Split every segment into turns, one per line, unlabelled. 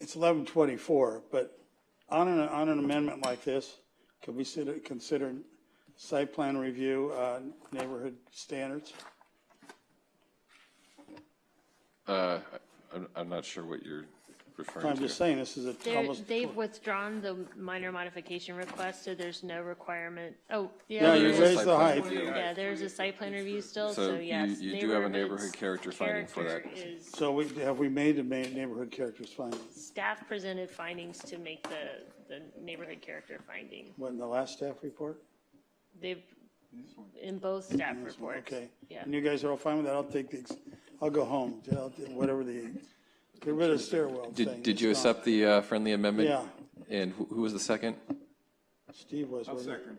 It's eleven twenty-four, but on an, on an amendment like this, could we sit- consider site plan review, uh, neighborhood standards?
Uh, I'm, I'm not sure what you're referring
I'm just
to.
saying, this is a
They're-
almost.
They've withdrawn the minor modification request, so there's no requirement. Oh,
Yeah,
yeah,
you
there's
raised
raise
a,
the height.
site plan
yeah, there's a site plan review still,
So
so
you-
yes.
you do have a
neighborhood's
neighborhood character finding for that.
character is-
So we, have we made the ma- neighborhood characters findings?
Staff presented findings to make the, the neighborhood character finding.
What, in the last staff report?
They've, in both staff reports.
Okay.
Yeah.
And you guys are all fine with that? I'll take the, ex- I'll go home, I'll do whatever the, get rid of the stairwell thing.
Did, did you
It's gone.
accept the uh, friendly amendment?
Yeah.
And who, who was the second?
Steve was, wasn't
Second,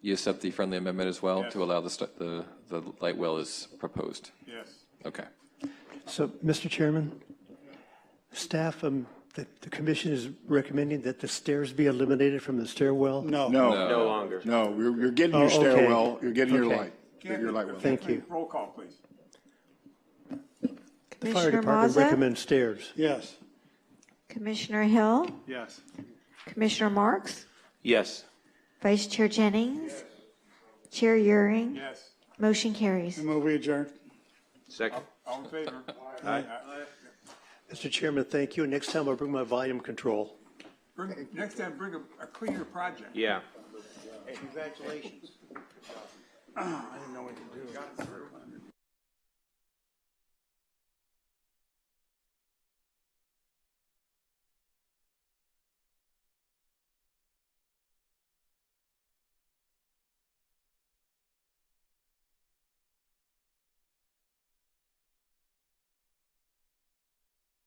You accept the friendly amendment as well to allow the, st- the, the light well is proposed?
yes.
Okay.
So, Mr. Chairman, staff, um, the, the commission is recommending that the stairs be eliminated from the stairwell?
he? No.
No,
No,
longer. no, you're, you're getting
Oh,
your
okay.
stairwell, you're getting your
Okay.
light, your light well.
Thank you.
Roll call, please.
The fire
Commissioner
department
Maza,
recommends stairs.
Yes.
Commissioner Hill,
Yes.
Commissioner Marks,
Yes.
Vice Chair Jennings, Chair Euring,
Yes.
motion carries.
Move we adjourn.
Second.
All in favor? Aye.
Mr. Chairman, thank you. Next time I'll bring my volume control.
Bring- Next time, bring a a cleaner project.
Yeah.
Congratulations. I didn't know what to do. Got it through.